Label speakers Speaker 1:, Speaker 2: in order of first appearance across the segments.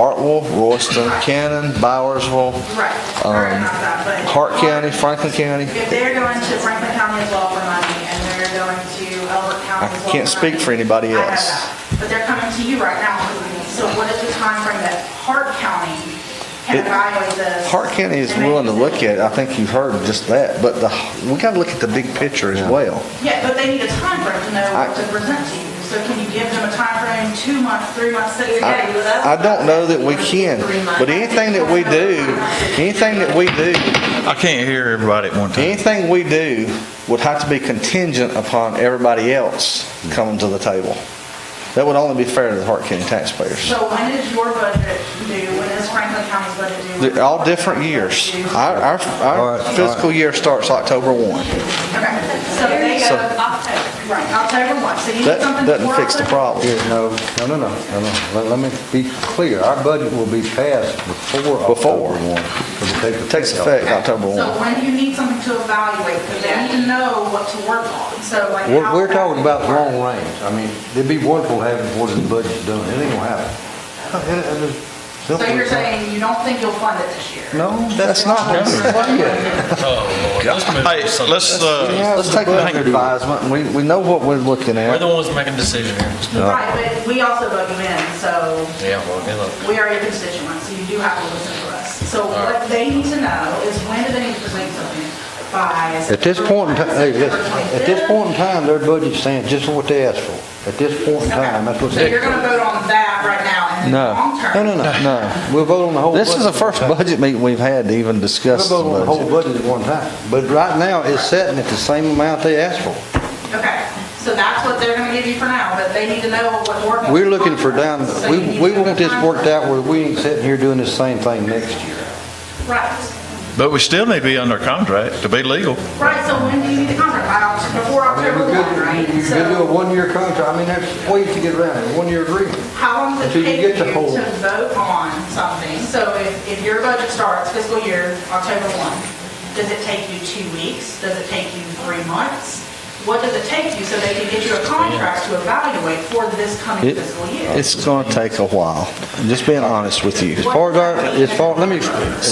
Speaker 1: Hartwell, Royston, Cannon, Bowersville,
Speaker 2: Right, sorry about that, but.
Speaker 1: Um,
Speaker 2: um,
Speaker 1: Hart County, Franklin County.
Speaker 2: If they're going to Franklin County as well for money, and they're going to Elbert County as
Speaker 1: I
Speaker 2: well.
Speaker 1: can't
Speaker 2: for
Speaker 1: speak
Speaker 2: money,
Speaker 1: for anybody
Speaker 2: I know
Speaker 1: else.
Speaker 2: that. But they're coming to you right now, so what is the timeframe that Hart County
Speaker 1: It-
Speaker 2: can evaluate this?
Speaker 1: Hart County is
Speaker 2: and make a
Speaker 1: willing to look at, it. I think you heard just that, but the, we gotta look at the big picture as well.
Speaker 2: decision? Yeah, but they need a timeframe to know
Speaker 1: I-
Speaker 2: what to present to you, so can you give them a timeframe, two months, three months, six?
Speaker 1: I I don't know that we can, but anything that we do, anything that we do,
Speaker 3: I can't hear everybody at one time.
Speaker 1: anything we do would have to be contingent upon everybody else coming to the table. That would only be fair to the Hart County taxpayers.
Speaker 2: So when is your budget due, when is Franklin County's budget due?
Speaker 1: They're all different years. Our, our-
Speaker 3: All
Speaker 1: our
Speaker 3: right, all right.
Speaker 1: fiscal year starts October 1.
Speaker 2: Okay, so they go
Speaker 1: So-
Speaker 2: October, right, October 1, so you need
Speaker 1: That
Speaker 2: something
Speaker 1: doesn't
Speaker 2: before
Speaker 1: fix the
Speaker 2: October?
Speaker 1: problem.
Speaker 4: Yeah, no, no, no, no, no, no. Let- let me be clear, our budget will be passed before
Speaker 1: Before.
Speaker 4: October 1. Before.
Speaker 1: It takes effect October 1.
Speaker 2: So when do you need something to evaluate, because they need to know what to work on, so like.
Speaker 4: We're,
Speaker 2: how-
Speaker 4: we're talking about long range, I mean, it'd be wonderful having what the budget's done, it ain't gonna happen.
Speaker 2: So you're saying you don't think you'll fund it this year?
Speaker 4: No, that's not what I'm saying.
Speaker 3: Hey, let's, uh,
Speaker 1: Let's take it under advisement, and we, we know what we're looking
Speaker 5: We're the
Speaker 1: at.
Speaker 5: ones making decisions here.
Speaker 2: Right, but we also vote you in, so
Speaker 5: Yeah, well, good luck.
Speaker 2: we are your constituents, so you do have to listen to us. So what they need to know is when do they need to present something by?
Speaker 4: At this point in time, hey, listen, at this
Speaker 2: 25th?
Speaker 4: point in time, their budget's saying just what they asked for. At this point in time, that's what
Speaker 2: So you're
Speaker 4: they.
Speaker 2: gonna vote on that right now, and then
Speaker 1: No.
Speaker 2: long term?
Speaker 4: No, no, no.
Speaker 1: No.
Speaker 4: We'll vote on the whole budget.
Speaker 1: This is the first budget meeting we've had to even
Speaker 4: We'll
Speaker 1: discuss the
Speaker 4: vote on the whole
Speaker 1: budget.
Speaker 4: budget at one time, but right now, it's sitting at the same amount they asked for.
Speaker 2: Okay, so that's what they're gonna give you for now, but they need to know what work.
Speaker 4: We're looking for down,
Speaker 2: So
Speaker 4: we,
Speaker 2: you need
Speaker 4: we
Speaker 2: to know
Speaker 4: want
Speaker 2: the
Speaker 4: this worked
Speaker 2: timeframe.
Speaker 4: out where we ain't sitting here doing this same thing next year.
Speaker 2: Right,
Speaker 3: but we still need to be under contract to be legal.
Speaker 2: right, so when do you need the contract? By Oct- Before
Speaker 4: I mean,
Speaker 2: October
Speaker 4: we could,
Speaker 2: one, right?
Speaker 4: you could do a
Speaker 2: So
Speaker 4: one-year contract, I mean, there's ways to get around it, one-year agreement.
Speaker 2: how long does
Speaker 4: until
Speaker 2: it
Speaker 4: you
Speaker 2: take you
Speaker 4: get
Speaker 2: to
Speaker 4: the whole-
Speaker 2: vote on something? So if, if your budget starts fiscal year October one, does it take you two weeks? Does it take you three months? What does it take you so they can get you a contract to evaluate for this coming
Speaker 1: It-
Speaker 2: fiscal year?
Speaker 1: It's gonna take a while, just being honest with you.
Speaker 4: As far as our, as far, let me. as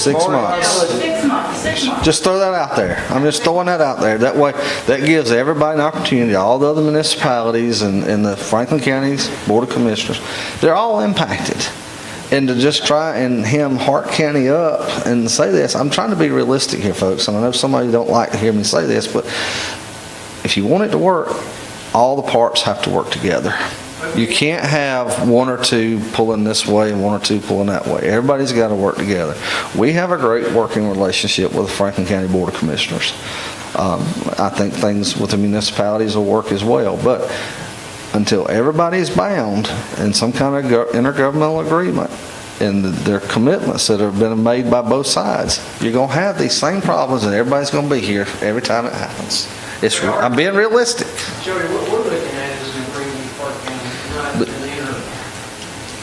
Speaker 1: Six
Speaker 4: far as our
Speaker 1: months.
Speaker 4: budget-
Speaker 2: Six months, six months.
Speaker 1: Just throw that out there. I'm just throwing that out there. That way, that gives everybody an opportunity, all the other municipalities and, and the Franklin County's Board of Commissioners, they're all impacted. And to just try and hem Hart County up and say this, I'm trying to be realistic here, folks, and I know somebody don't like to hear me say this, but if you want it to work, all the parts have to work together. You can't have one or two pulling this way and one or two pulling that way. Everybody's got to work together. We have a great working relationship with the Franklin County Board of Commissioners. Um, I think things with the municipalities will work as well, but until everybody's bound in some kind of gov- intergovernmental agreement and their commitments that have been made by both sides, you're going to have these same problems and everybody's going to be here every time it happens. It's, I'm being realistic.
Speaker 6: Jody, what we're looking at is an agreement with Park County, not an interim.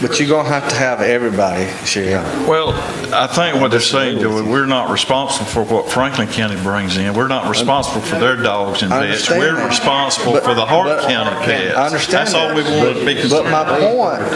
Speaker 1: But you're gonna have to have everybody share.
Speaker 3: Well, I think what they're saying, Joey, we're not responsible for what Franklin County brings in. We're not responsible for their dogs and
Speaker 1: I
Speaker 3: pets.
Speaker 1: understand
Speaker 3: We're
Speaker 1: that.
Speaker 3: responsible
Speaker 1: But-
Speaker 3: for the Hart
Speaker 1: but-
Speaker 3: County pets.
Speaker 1: I understand
Speaker 3: That's all we
Speaker 1: that.
Speaker 3: want to be
Speaker 1: But
Speaker 3: concerned
Speaker 1: my
Speaker 3: about.
Speaker 1: point,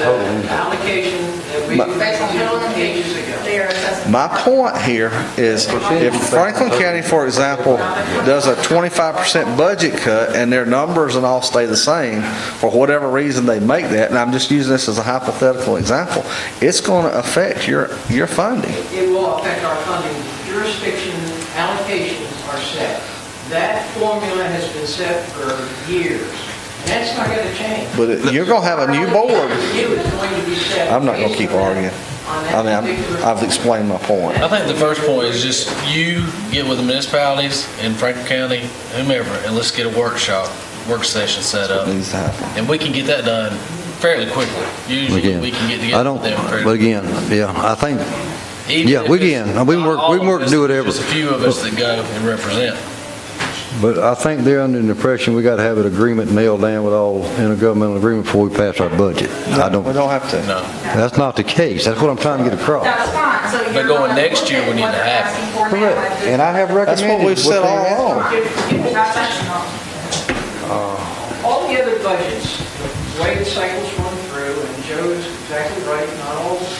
Speaker 6: Allocation that we
Speaker 2: Based on total
Speaker 6: did eight years ago.
Speaker 2: engagement, their assessment.
Speaker 1: my point here is if Franklin County, for example, does a twenty-five percent budget cut and their numbers and all stay the same, for whatever reason they make that, and I'm just using this as a hypothetical example, it's gonna affect your, your funding.
Speaker 6: It will affect our funding. Jurisdiction allocations are set. That formula has been set for years. That's not going to change.
Speaker 1: But it- you're gonna have a new board.
Speaker 6: It was going to be set.
Speaker 1: I'm not gonna keep
Speaker 6: based on that-
Speaker 1: arguing. I
Speaker 6: on that
Speaker 1: mean, I'm-
Speaker 6: particular-
Speaker 1: I've explained my point.
Speaker 5: I think the first point is just you get with the municipalities in Franklin County, whomever, and let's get a workshop, work session set
Speaker 1: It
Speaker 5: up.
Speaker 4: Mm-hmm.
Speaker 1: needs to happen.
Speaker 5: And we can get that done fairly quickly. Usually,
Speaker 4: Again,
Speaker 5: we can get
Speaker 4: I
Speaker 5: together
Speaker 4: don't,
Speaker 5: with them
Speaker 4: but
Speaker 5: fairly.
Speaker 4: again, yeah, I think,
Speaker 5: Even
Speaker 4: yeah,
Speaker 5: if
Speaker 4: we
Speaker 5: it's
Speaker 4: can. We can
Speaker 5: not
Speaker 4: work-
Speaker 5: all
Speaker 4: we can
Speaker 5: of
Speaker 4: work to
Speaker 5: us,
Speaker 4: do whatever.
Speaker 5: Just a few of us that go and represent.
Speaker 4: but I think they're under the impression we gotta have an agreement nailed down with all intergovernmental agreement before we pass our budget. I
Speaker 1: We
Speaker 4: don't,
Speaker 1: don't have to.
Speaker 5: No.
Speaker 4: that's not the case, that's what I'm trying to get across.
Speaker 2: That's fine, so you're.
Speaker 5: But going next year, we need to have it.
Speaker 4: Correct, and I have recommended.
Speaker 1: That's what we've said
Speaker 4: they
Speaker 1: all
Speaker 4: asked
Speaker 1: along.
Speaker 6: All the other budgets, the way the cycles run through, and Joe is exactly right, not all